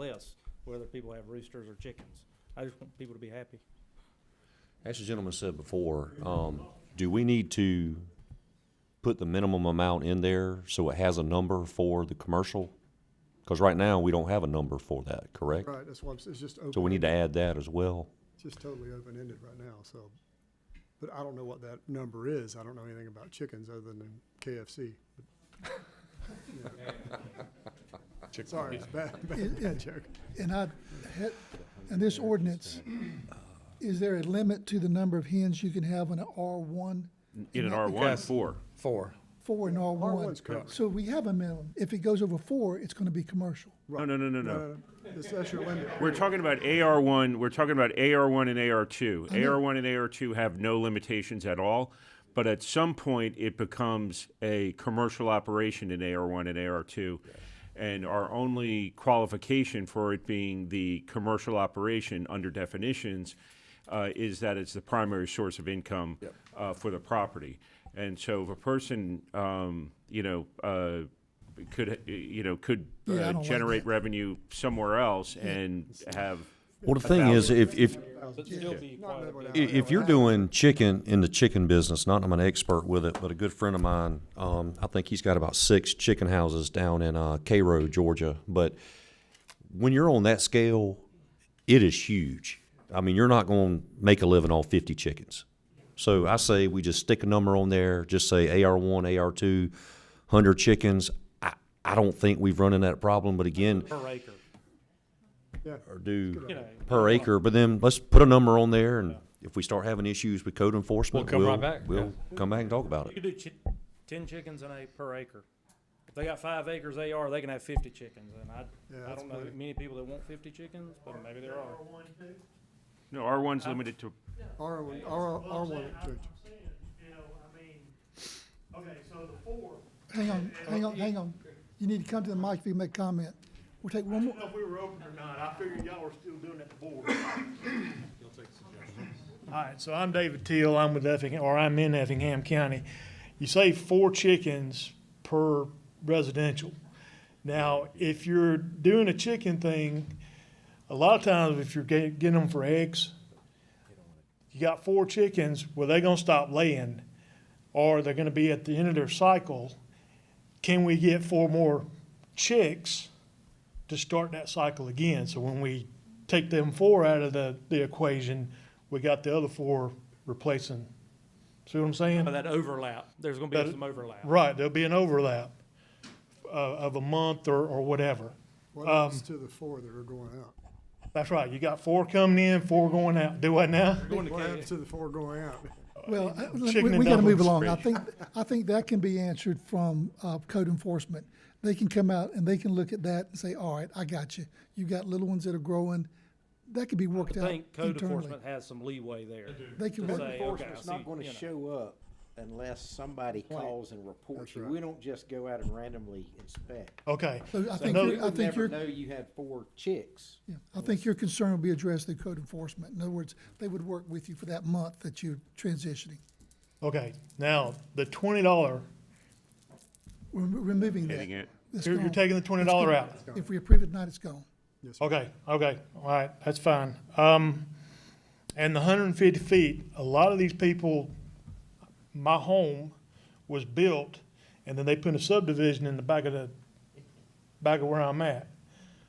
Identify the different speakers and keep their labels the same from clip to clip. Speaker 1: less, whether people have roosters or chickens. I just want people to be happy.
Speaker 2: As the gentleman said before, um, do we need to put the minimum amount in there so it has a number for the commercial? Because right now, we don't have a number for that, correct?
Speaker 3: Right, that's why I'm s- it's just
Speaker 2: So we
Speaker 3: open,
Speaker 2: need to add that as well.
Speaker 3: it's just totally open-ended right now, so. But I don't know what that number is. I don't know anything about chickens other than KFC. Sorry, it's bad, bad bad joke.
Speaker 4: And I, had- in this ordinance, is there a limit to the number of hens you can have in an R1?
Speaker 5: In an R one, four.
Speaker 6: Four.
Speaker 4: Four in R1?
Speaker 3: R1's covered.
Speaker 4: So we have a minimum. If it goes over four, it's going to be commercial.
Speaker 5: No, no, no, no, no.
Speaker 3: Uh, That's, that's your limit.
Speaker 5: We're talking about AR one, we're talking about AR one and AR two.
Speaker 4: Mm-hmm.
Speaker 5: AR one and AR two have no limitations at all, but at some point, it becomes a commercial operation in AR one and AR two. And our only qualification for it being the commercial operation under definitions uh, is that it's the primary source of income uh, for the property. And so if a person, um, you know, uh, could, you know, could
Speaker 4: Yeah, I
Speaker 5: uh,
Speaker 4: don't like
Speaker 5: generate
Speaker 4: that.
Speaker 5: revenue somewhere else and have.
Speaker 2: Well, the thing is, if, if,
Speaker 1: But still be
Speaker 3: Not
Speaker 1: quiet.
Speaker 3: that one out.
Speaker 2: i- if you're doing chicken in the chicken business, not I'm an expert with it, but a good friend of mine, um, I think he's got about six chicken houses down in, uh, Cairo, Georgia. But when you're on that scale, it is huge. I mean, you're not going to make a living off 50 chickens. So I say we just stick a number on there, just say AR1, AR2, 100 chickens. I, I don't think we've run into that problem, but again,
Speaker 1: Per acre.
Speaker 3: Yeah,
Speaker 2: or do
Speaker 1: You know,
Speaker 2: per acre, but then let's put a number on there and if we start having issues with code enforcement,
Speaker 7: We'll come
Speaker 2: we'll,
Speaker 7: right back,
Speaker 2: we'll come back and talk about
Speaker 1: you
Speaker 2: it.
Speaker 1: could do chi- ten chickens in a per acre. If they got five acres AR, they can have fifty chickens, and I,
Speaker 3: Yeah,
Speaker 1: I
Speaker 3: that's
Speaker 1: don't know
Speaker 3: plenty.
Speaker 1: many people that want fifty chickens, but maybe there are.
Speaker 5: No, R one's limited to,
Speaker 3: R one, R, R one,
Speaker 8: saying, you know, I mean, okay, so the four,
Speaker 4: Hang on, hang on, hang on. You need to come to the mic if you make a comment. We'll take one
Speaker 8: I
Speaker 4: more.
Speaker 8: didn't know if we were open or not, I figured y'all were still doing it before. All right, so I'm David Teal, I'm with Effingham, or I'm in Effingham County. You say four chickens per residential. Now, if you're doing a chicken thing, a lot of times if you're get- getting them for eggs, you got four chickens, well, they're gonna stop laying, or they're gonna be at the end of their cycle. Can we get four more chicks? to start that cycle again. So when we take them four out of the, the equation, we got the other four replacing. See what I'm
Speaker 1: But
Speaker 8: saying?
Speaker 1: that overlap, there's gonna be
Speaker 8: That-
Speaker 1: some overlap.
Speaker 8: Right, there'll be an overlap uh, of a month or, or whatever.
Speaker 3: what happens to the four that are going out?
Speaker 8: That's right, you got four coming in, four going out. Do what now?
Speaker 1: Going to
Speaker 3: What
Speaker 1: K-
Speaker 3: happens to the four going out?
Speaker 4: Well, I- we,
Speaker 8: Chicken and
Speaker 4: we gotta move
Speaker 8: dumplings.
Speaker 4: along. I think, I think that can be answered from, uh, code enforcement. They can come out and they can look at that and say, all right, I got you. You got little ones that are growing. That could be
Speaker 1: I
Speaker 4: worked out
Speaker 1: think code
Speaker 4: internally.
Speaker 1: enforcement has some leeway there.
Speaker 4: They can
Speaker 1: to
Speaker 4: work-
Speaker 1: say, okay, I
Speaker 9: Enforcement's
Speaker 1: see,
Speaker 9: not gonna
Speaker 1: you know.
Speaker 9: show up unless somebody calls and reports you.
Speaker 3: right.
Speaker 9: We don't just go out and randomly inspect.
Speaker 8: Okay.
Speaker 4: So I
Speaker 9: So
Speaker 4: think,
Speaker 8: no-
Speaker 4: your-
Speaker 9: you
Speaker 4: I
Speaker 9: would
Speaker 4: think
Speaker 9: never
Speaker 4: your,
Speaker 9: Know you had four chicks.
Speaker 4: yeah, I think your concern will be addressed through code enforcement. In other words, they would work with you for that month that you're transitioning.
Speaker 8: Okay, now, the twenty dollar,
Speaker 4: We're re- removing that.
Speaker 5: hitting it.
Speaker 4: That's
Speaker 8: you're, you're
Speaker 4: gone.
Speaker 8: taking the twenty dollar out.
Speaker 4: If we approve it tonight, it's gone.
Speaker 8: Okay, okay, all right, that's fine. Um, and the hundred and fifty feet, a lot of these people, my home was built, and then they put a subdivision in the back of the, back of where I'm at.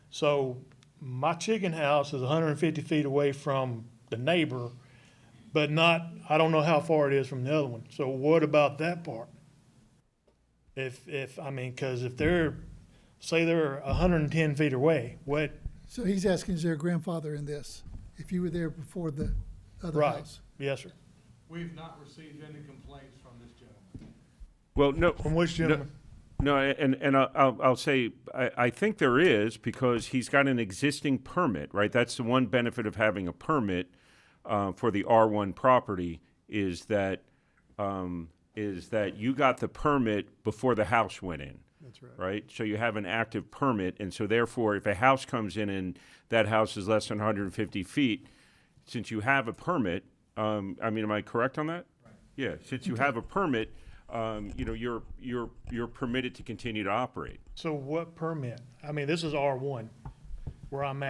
Speaker 8: So my chicken house is hundred and fifty feet away from the neighbor, but not, I don't know how far it is from the other one. So what about that part? If, if, I mean, cause if they're, say they're hundred and ten feet away, what,
Speaker 4: So he's asking, is there a grandfather in this? If you were there before the other
Speaker 8: Right.
Speaker 4: house?
Speaker 8: Yes, sir.
Speaker 7: We've not received any complaints from this gentleman.
Speaker 5: Well, no.
Speaker 8: From which
Speaker 5: no-
Speaker 8: gentleman?
Speaker 5: No, and, and I'll- I'll, I'll say, I, I think there is because he's got an existing permit, right? That's the one benefit of having a permit, uh, for the R one property is that, um, is that you got the permit before the house went in. That's right. Right? So you have an active permit and so therefore if a house comes in and that house is less than hundred and fifty feet, since you have a permit, um, I mean, am I correct on that? Yeah, since you have a permit, um, you know, you're, you're, you're permitted to continue to operate.
Speaker 8: So what permit? I mean, this is R one. where I'm at.